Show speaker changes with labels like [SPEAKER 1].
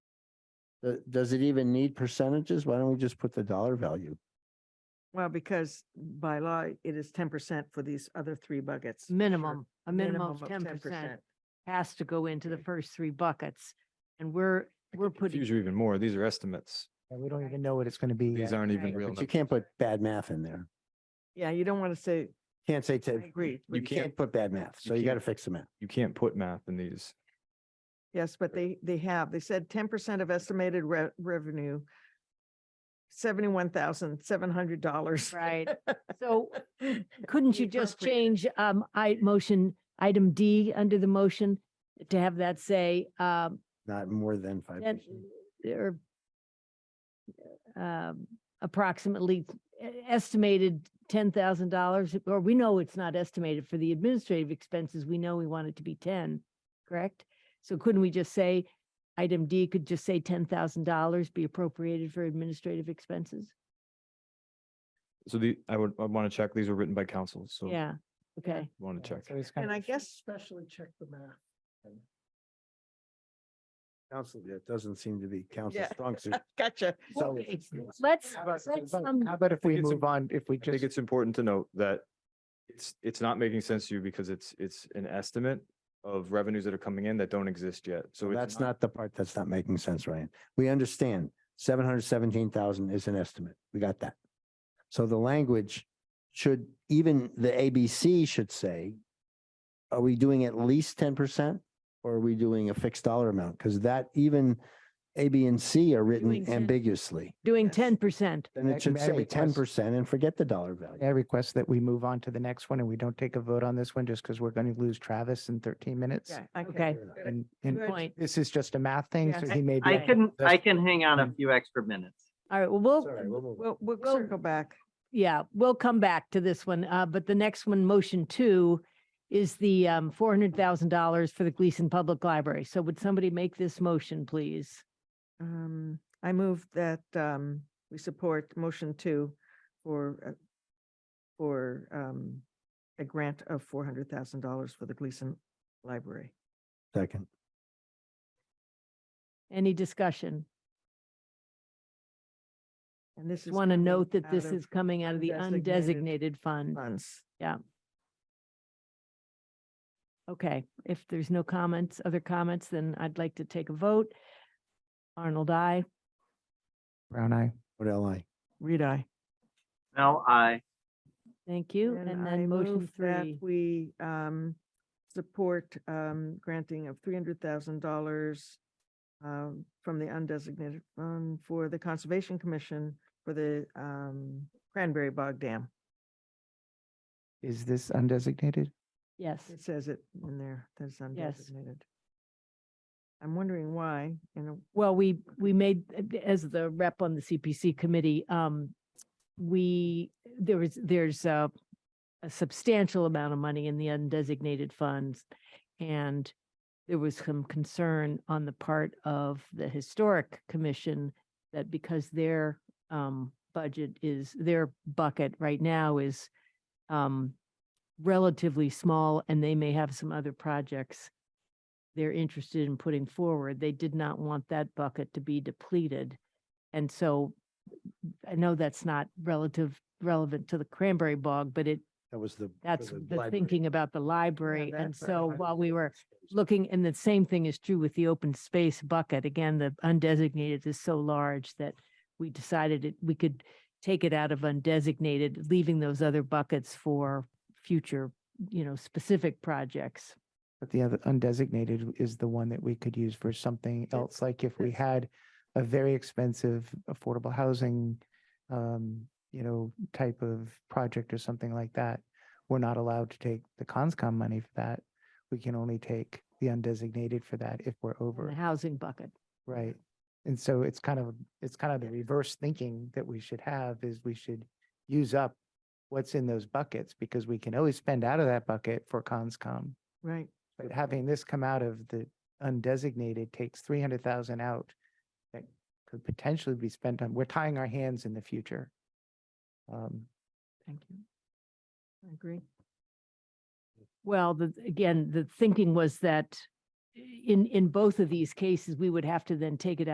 [SPEAKER 1] Uh, Does it even need percentages? Why don't we just put the dollar value?
[SPEAKER 2] Well, because by law, it is ten percent for these other three buckets. for sure.
[SPEAKER 3] minimum, a minimum of ten percent has to go into the
[SPEAKER 2] Okay.
[SPEAKER 3] first three buckets. And we're, we're putting,
[SPEAKER 4] Confuse you even more. These are estimates.
[SPEAKER 5] And we don't even know what it's going to be
[SPEAKER 4] These
[SPEAKER 5] yet.
[SPEAKER 4] aren't even
[SPEAKER 2] Right.
[SPEAKER 4] real.
[SPEAKER 1] But you
[SPEAKER 4] numbers.
[SPEAKER 1] can't put bad math in there.
[SPEAKER 2] Yeah, you don't want to say,
[SPEAKER 1] Can't say,
[SPEAKER 2] I
[SPEAKER 1] to-
[SPEAKER 2] agree.
[SPEAKER 4] You
[SPEAKER 1] you can't put bad math,
[SPEAKER 4] you
[SPEAKER 1] so you got to
[SPEAKER 4] can't.
[SPEAKER 1] fix the math.
[SPEAKER 4] You can't put math in these.
[SPEAKER 2] Yes, but they, they have, they said ten percent of estimated re- revenue, seventy-one thousand, seven hundred dollars.
[SPEAKER 3] right? So couldn't
[SPEAKER 2] be
[SPEAKER 3] you just
[SPEAKER 2] appropriate.
[SPEAKER 3] change, um, I, motion, item D under the motion to have that say, um,
[SPEAKER 1] Not more than five
[SPEAKER 3] then,
[SPEAKER 1] percent.
[SPEAKER 3] or um, approximately e- estimated ten thousand dollars, or we know it's not estimated for the administrative expenses. We know we want it to be ten, correct? So couldn't we just say, item D could just say ten thousand dollars be appropriated for administrative expenses?
[SPEAKER 4] So the, I would, I want to check. These were written by council, so.
[SPEAKER 3] Yeah, okay.
[SPEAKER 4] Want to check.
[SPEAKER 5] So it's kind
[SPEAKER 2] And
[SPEAKER 5] of-
[SPEAKER 2] I guess,
[SPEAKER 5] Especially check the math.
[SPEAKER 1] Council, it doesn't seem to be council
[SPEAKER 2] Yeah.
[SPEAKER 1] strong suit.
[SPEAKER 2] gotcha.
[SPEAKER 1] So
[SPEAKER 3] Okay, Let's,
[SPEAKER 5] How about-
[SPEAKER 3] let's, um,
[SPEAKER 5] how about if we
[SPEAKER 4] it's
[SPEAKER 5] move on, if we
[SPEAKER 4] I think
[SPEAKER 5] just,
[SPEAKER 4] it's important to note that it's, it's not making sense to you because it's, it's an estimate of revenues that are coming in that don't exist yet. So it's
[SPEAKER 1] that's not the part that's not making sense, Ryan. We understand seven hundred seventeen thousand is an estimate. We got that. So the language should, even the ABC should say, are we doing at least ten percent? Or are we doing a fixed dollar amount? Because that even A, B, and C are
[SPEAKER 3] Doing
[SPEAKER 1] written
[SPEAKER 3] 10.
[SPEAKER 1] ambiguously.
[SPEAKER 3] doing
[SPEAKER 2] Yes.
[SPEAKER 3] ten percent.
[SPEAKER 1] Then
[SPEAKER 5] I-
[SPEAKER 1] it should
[SPEAKER 5] I
[SPEAKER 1] say ten
[SPEAKER 5] request-
[SPEAKER 1] percent and forget the dollar
[SPEAKER 5] I
[SPEAKER 1] value.
[SPEAKER 5] request that we move on to the next one and we don't take a vote on this one just because we're going to lose Travis in thirteen minutes.
[SPEAKER 2] Yeah,
[SPEAKER 3] Okay,
[SPEAKER 5] And, and
[SPEAKER 2] Good.
[SPEAKER 3] point.
[SPEAKER 5] this is just a math thing, so
[SPEAKER 3] Yes.
[SPEAKER 5] he may be.
[SPEAKER 6] I
[SPEAKER 3] Yeah.
[SPEAKER 6] can, I
[SPEAKER 5] That's-
[SPEAKER 6] can hang on a
[SPEAKER 5] Mm.
[SPEAKER 6] few extra minutes.
[SPEAKER 3] All right, well, we'll,
[SPEAKER 2] We'll, we'll
[SPEAKER 3] Well-
[SPEAKER 2] circle back.
[SPEAKER 3] Yeah, we'll come back to this one, uh, but the next one, motion two, is the, um, four hundred thousand dollars for the Gleason Public Library. So would somebody make this motion, please?
[SPEAKER 2] Um, I move that, um, we support motion two for, uh, for, um, a grant of four hundred thousand dollars for the Gleason Library.
[SPEAKER 1] Second.
[SPEAKER 3] Any discussion?
[SPEAKER 2] And this is.
[SPEAKER 3] Just want to
[SPEAKER 2] coming
[SPEAKER 3] note that
[SPEAKER 2] out
[SPEAKER 3] this
[SPEAKER 2] of
[SPEAKER 3] is coming out of the
[SPEAKER 2] undesignated
[SPEAKER 3] undesignated fund.
[SPEAKER 2] Funds.
[SPEAKER 3] Okay, if there's no comments, other comments, then I'd like to take a vote. Arnold, I.
[SPEAKER 5] Brown eye.
[SPEAKER 1] What L I?
[SPEAKER 2] Reed, I.
[SPEAKER 6] No, I,
[SPEAKER 3] Thank you. And
[SPEAKER 2] I
[SPEAKER 3] then motion
[SPEAKER 2] move that
[SPEAKER 3] three.
[SPEAKER 2] We um support um granting of three hundred thousand dollars um from the undesignated fund for the Conservation Commission for the um Cranberry Bog Dam.
[SPEAKER 5] Is this undesignated?
[SPEAKER 3] Yes.
[SPEAKER 2] It says it in there, that's
[SPEAKER 3] Yes.
[SPEAKER 2] undesignated. I'm wondering why, you know,
[SPEAKER 3] Well, we, we made, as the rep on the CPC committee, um, we, there was, there's a, a substantial amount of money in the undesignated funds. And there was some concern on the part of the historic commission that because their, um, budget is, their bucket right now is, um, relatively small and they may have some other projects they're interested in putting forward. They did not want that bucket to be depleted. And so I know that's not relative, relevant to the cranberry bog, but it,
[SPEAKER 1] That was the. for
[SPEAKER 3] that's the
[SPEAKER 1] library.
[SPEAKER 3] thinking about the library. And
[SPEAKER 2] that's right.
[SPEAKER 3] so while we were looking, and the same thing is true with the open space bucket. Again, the undesignated is so large that we decided it, we could take it out of undesignated, leaving those other buckets for future, you know, specific projects.
[SPEAKER 5] But the other undesignated is the one that we could use for something else, like if we had a very expensive affordable housing, um, you know, type of project or something like that. We're not allowed to take the conscom money for that. We can only take the undesignated for that if we're
[SPEAKER 3] in The
[SPEAKER 5] over,
[SPEAKER 3] housing bucket.
[SPEAKER 5] right? And so it's kind of, it's kind of the reverse thinking that we should have is we should use up what's in those buckets because we can always spend out of that bucket for conscom.
[SPEAKER 2] right?
[SPEAKER 5] But having this come out of the undesignated takes three hundred thousand out that could potentially be spent on, we're tying our hands in the future. Um,
[SPEAKER 3] Thank you. I agree. Well, the, eh, again, the thinking was that in, in both of these cases, we would have to then take it out.